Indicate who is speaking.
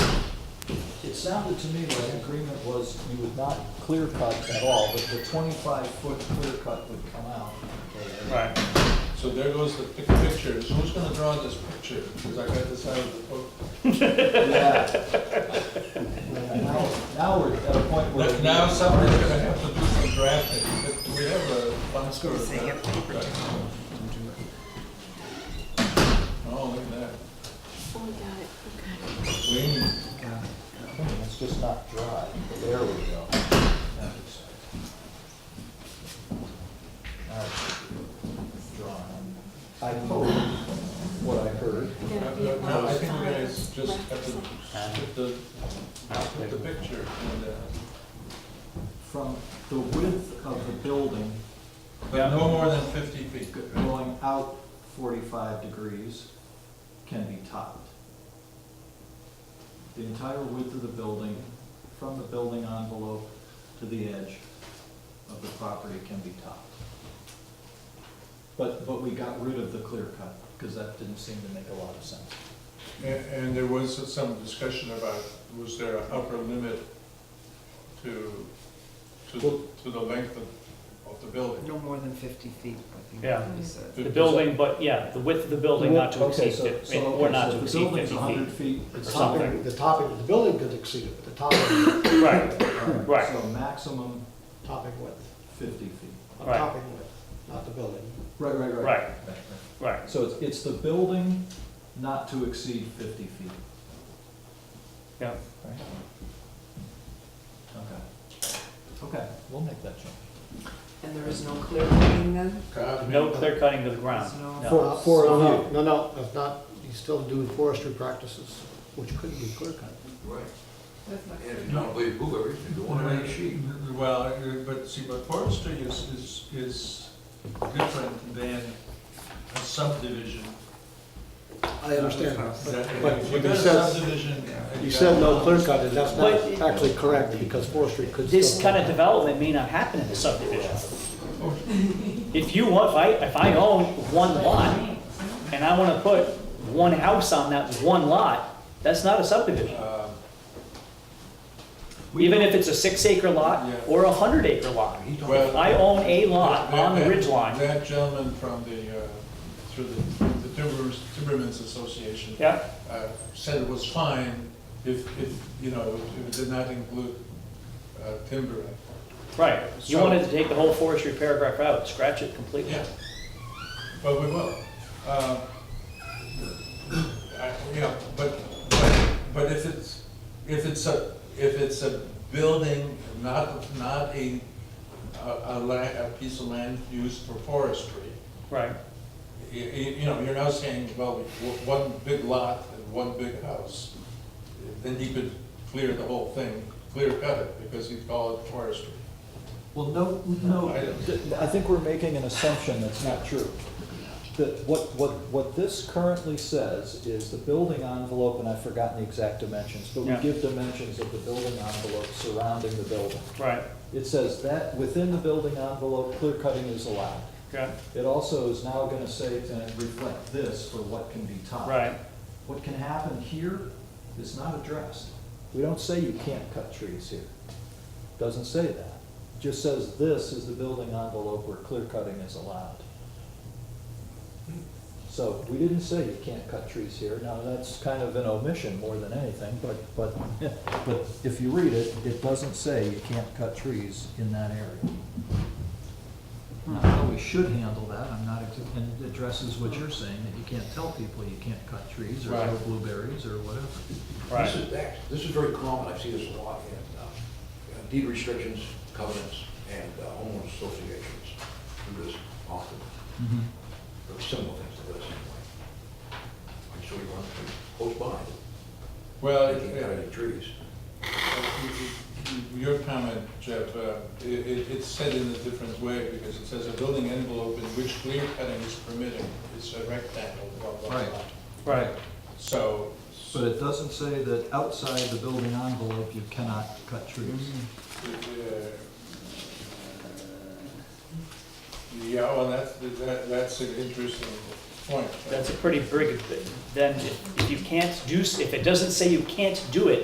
Speaker 1: sounded to me like agreement was you would not clear cut at all, but the twenty-five foot clear cut would come out.
Speaker 2: Right.
Speaker 3: So there goes the pic- pictures. Who's gonna draw this picture? Because I got this out of the book.
Speaker 1: Yeah. Yeah, Now, now we're at a point where.
Speaker 3: But Now somebody's gonna have to do some drafting. Do we have a box or a draft? Oh, look at that.
Speaker 4: Oh, we got it, okay.
Speaker 3: Lean.
Speaker 1: Hmm, It's just not dry. There we go. Now it's- now it's Drawn. I quote what I heard.
Speaker 4: Gotta be at
Speaker 3: No, I think we're gonna
Speaker 4: last time.
Speaker 3: just have to put the, put the picture in there.
Speaker 1: From the width of the building
Speaker 3: But no more than fifty feet.
Speaker 1: going out forty-five degrees can be topped. The entire width of the building, from the building envelope to the edge of the property can be topped. But, but we got rid of the clear cut, because that didn't seem to make a lot of sense.
Speaker 3: And, and there was some discussion about, was there an upper limit to, to, to the length of, of the building?
Speaker 5: No more than fifty feet, I think
Speaker 2: Yeah.
Speaker 5: we said.
Speaker 2: The building, but yeah, the width of the building not to
Speaker 1: Okay,
Speaker 2: exceed
Speaker 1: so-
Speaker 2: fifty,
Speaker 1: so-
Speaker 2: or
Speaker 1: okay,
Speaker 2: not
Speaker 1: so
Speaker 2: to exceed fifty
Speaker 1: The building's
Speaker 2: feet.
Speaker 1: hundred feet.
Speaker 2: or
Speaker 1: it's
Speaker 2: something.
Speaker 1: topped.
Speaker 6: The topic of the building could exceed it, but the topic,
Speaker 2: Right,
Speaker 1: Alright,
Speaker 2: Right.
Speaker 1: So maximum
Speaker 6: topic width,
Speaker 1: fifty feet.
Speaker 6: the
Speaker 2: Right.
Speaker 6: topic width, not the building.
Speaker 1: Right, right, right.
Speaker 2: Right. right.
Speaker 1: So it's, it's the building not to exceed fifty feet.
Speaker 2: Yeah.
Speaker 1: Right. Okay. Okay, we'll make that change.
Speaker 5: And there is no clear cutting then?
Speaker 2: No clear cutting to the ground.
Speaker 5: There's no-
Speaker 2: No.
Speaker 6: For, for, no, Uh, no, no, that's not, he's still doing forestry practices, which could be clear cut.
Speaker 7: Right. And if you don't believe Hoover, you can go on a sheet.
Speaker 3: Well, uh, but see, but forestry is, is, is different than a subdivision.
Speaker 6: I understand that,
Speaker 3: That-
Speaker 6: but
Speaker 3: If
Speaker 6: when
Speaker 3: you got
Speaker 6: he
Speaker 3: a
Speaker 6: says-
Speaker 3: subdivision.
Speaker 6: but you said no clear cut, and that's
Speaker 2: But-
Speaker 6: not actually correct, because forestry could still.
Speaker 2: This kind of development may not happen in the subdivision. If you want, if I, if I own one lot, and I wanna put one house on that one lot, that's not a subdivision.
Speaker 3: Uh,
Speaker 2: Even if it's a six acre lot
Speaker 3: Yeah.
Speaker 2: or a hundred acre lot.
Speaker 3: Well-
Speaker 2: I own a lot on the
Speaker 3: That- that-
Speaker 2: ridge line.
Speaker 3: That gentleman from the, uh, through the, the Timbers, Timbermen's Association.
Speaker 2: Yeah,
Speaker 3: uh, said it was fine if, if, you know, if it did not include uh, timber.
Speaker 2: right. You
Speaker 3: So-
Speaker 2: wanted to take the whole forestry paragraph out, scratch it completely.
Speaker 3: Yeah, but we will. Uh, I- Yeah, but, but, but if it's, if it's a, if it's a building, not, not a, a, a la- a piece of land used for forestry,
Speaker 2: Right,
Speaker 3: you, you know, you're now saying, well, w- one big lot and one big house, then he could clear the whole thing, clear cut it, because he'd call it forestry.
Speaker 1: Well, no, no,
Speaker 3: I don't-
Speaker 1: th- I think we're making an assumption that's not true. That what, what, what this currently says is the building envelope, and I've forgotten the exact dimensions, but we
Speaker 2: Yeah.
Speaker 1: give dimensions of the building envelope surrounding the building.
Speaker 2: right,
Speaker 1: It says that within the building envelope, clear cutting is allowed.
Speaker 2: yeah,
Speaker 1: It also is now gonna say to reflect this for what can be topped.
Speaker 2: right.
Speaker 1: What can happen here is not addressed. We don't say you can't cut trees here. Doesn't say that. Just says this is the building envelope where clear cutting is allowed. So we didn't say you can't cut trees here. Now, that's kind of an omission more than anything, but, but, but if you read it, it doesn't say you can't cut trees in that area. Now, how we should handle that, I'm not, ex- and it addresses what you're saying, that you can't tell people you can't cut trees or grow
Speaker 2: Right.
Speaker 1: blueberries or whatever.
Speaker 2: Right.
Speaker 7: This is, that- this is very common, I see this a lot in uh, deed restrictions, covenants, and uh, homeowners associations do this often, or similar things to this anyway. I'm sure you want to, close by,
Speaker 3: Well,
Speaker 7: you can't cut
Speaker 3: it-
Speaker 7: any trees.
Speaker 3: Uh, Your comment, Jeff, uh, i- i- it's said in a different way, because it says a building envelope in which clear cutting is permitted, it's a rectangle, blah, blah,
Speaker 1: Right.
Speaker 3: blah.
Speaker 2: Right,
Speaker 3: So,
Speaker 1: But it doesn't say that outside the building envelope, you cannot cut trees.
Speaker 3: uh, yeah, well, that's, that- that's an interesting point.
Speaker 2: that's a pretty big, then if you can't do, s- if it doesn't say you can't do it,